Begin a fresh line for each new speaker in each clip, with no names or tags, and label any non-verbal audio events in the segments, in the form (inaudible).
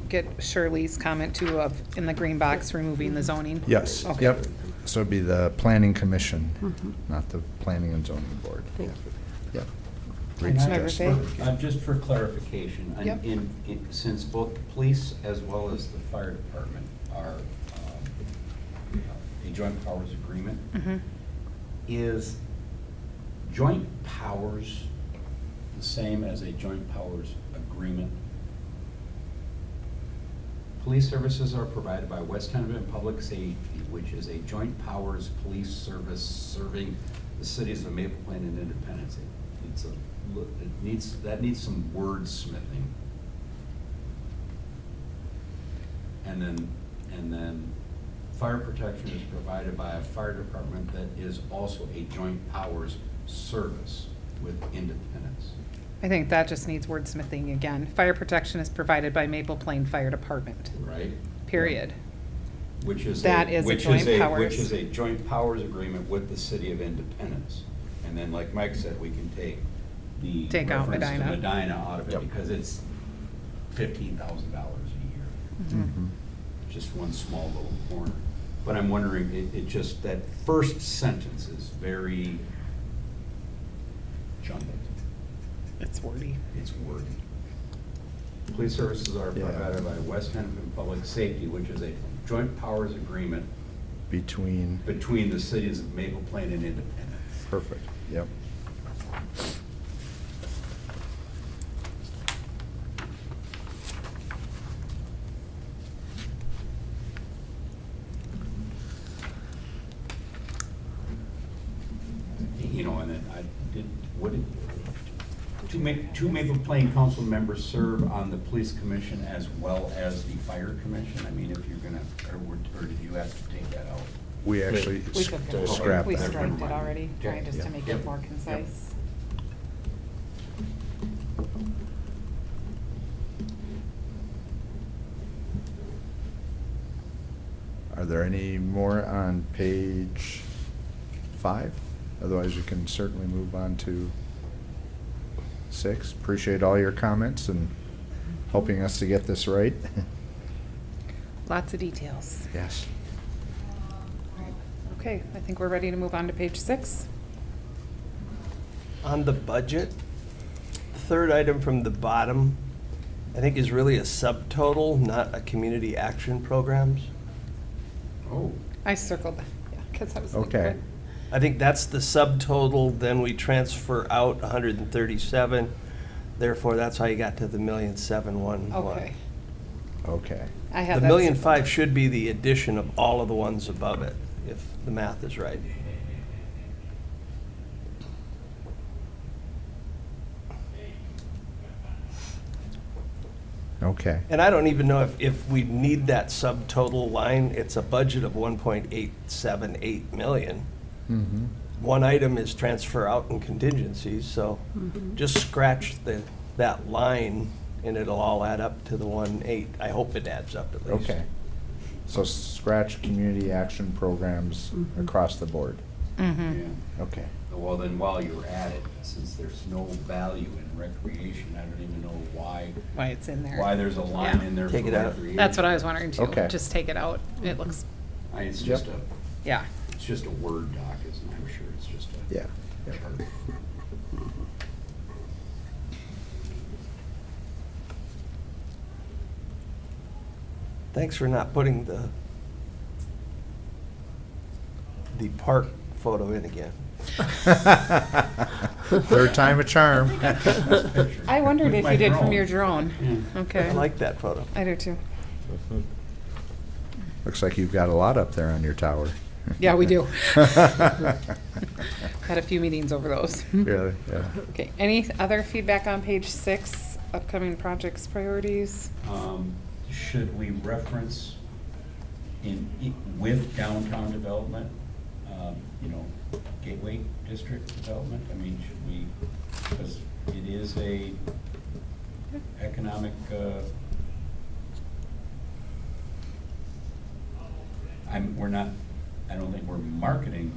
Get Shirley's comment too of, in the green box, removing the zoning?
Yes,
Okay.
yep. So it'd be the planning commission, not the planning and zoning board.
Thank
Yeah. Yep. Great
And I-
suggestion.
Member
Uh, Just for clarification, and
Yep.
in- in- since both the police as well as the fire department are um, a joint powers agreement,
Mhm.
is joint powers the same as a joint powers agreement? Police services are provided by West Hennepin Public Safety, which is a joint powers police service serving the cities of Maple Plain and Independence. It- It's a, it needs, that needs some wordsmithing. And then, and then fire protection is provided by a fire department that is also a joint powers service with Independence.
I think that just needs wordsmithing again. Fire protection is provided by Maple Plain Fire Department,
Right?
period.
Which is. a-
That is a
which
joint
a-
powers.
Which is a joint powers agreement with the city of Independence. And then, like Mike said, we can take the.
Take out
reference to
Medina.
Medina out of it
Yep.
because it's fifteen thousand dollars a year,
Mm-hmm.
Mhm.
just one small little corner. But I'm wondering, it, it just, that first sentence is very jumbled.
It's wordy.
It's wordy. Police services are
Yeah.
provided by West Hennepin Public Safety, which is a joint powers agreement
Between,
between the cities of Maple Plain and Independence.
perfect, yep.
You know, and then I did, what did, two Ma, two Maple Plain council members serve on the police commission as well as the fire commission? I mean, if you're gonna, or, were- or did you have to take that out?
We actually
We
s-
took it
uh,
out.
scrapped
We
Never
that.
striped it
mind.
already, trying just to
Yeah.
make
Yep.
it more concise.
Are there any more on page five? Otherwise, we can certainly move on to six. Appreciate all your comments and helping us to get this right.
Lots of details.
Yes.
Okay, I think we're ready to move on to page six.
On the budget, the third item from the bottom, I think is really a subtotal, not a community action programs.
Oh,
I circled, that, yeah, because I was like,
Okay.
what?
I think that's the subtotal, then we transfer out 137, therefore that's how you got to the million seven one one.
Okay,
(laughs) Okay.
I had
The
that.
million
circled.
five should be the addition of all of the ones above it, if the math is right.
Okay.
And I don't even know if, if we need that subtotal line, it's a budget of 1.878 million.
Mhm.
one item is transfer out and contingencies, so just scratch the, that line and it'll all add up to the one eight. I hope it adds up at least.
Okay. So scratch community action programs
Mm-hmm.
across the board.
Hmm.
yeah.
Okay.
Well, then while you're at it, since there's no value in recreation, I don't even know why,
Why it's in there.
why there's a line
Yeah.
in there for
Take it out.
recreation.
That's what I was wondering too.
Okay.
Just take it out. It looks,
I- It's just
Yep.
a,
yeah.
it's just a Word doc, isn't it? I'm sure it's just a.
Yeah. yeah.
chart.
Thanks for not putting the, the park photo in again.
(laughs) Third time a
(laughs)
charm.
I wondered
With
if
my
you did from
drone.
your drone.
Yeah.
Okay.
I like that photo.
I do too.
Looks like you've got a lot up there on your tower.
Yeah, we
(laughs)
do. Had a few meetings over those.
Really? Yeah.
Okay, any other feedback on page six, upcoming projects, priorities?
Um, Should we reference in, i- with downtown development, um, you know, gateway district development? I mean, should we, because it is a economic, uh, I'm, we're not, I don't think we're marketing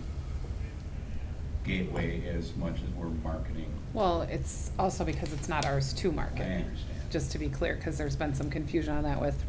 gateway as much as we're marketing,
Well, it's also because it's not ours to
I
market.
understand.
just to be clear, because there's been some confusion on that with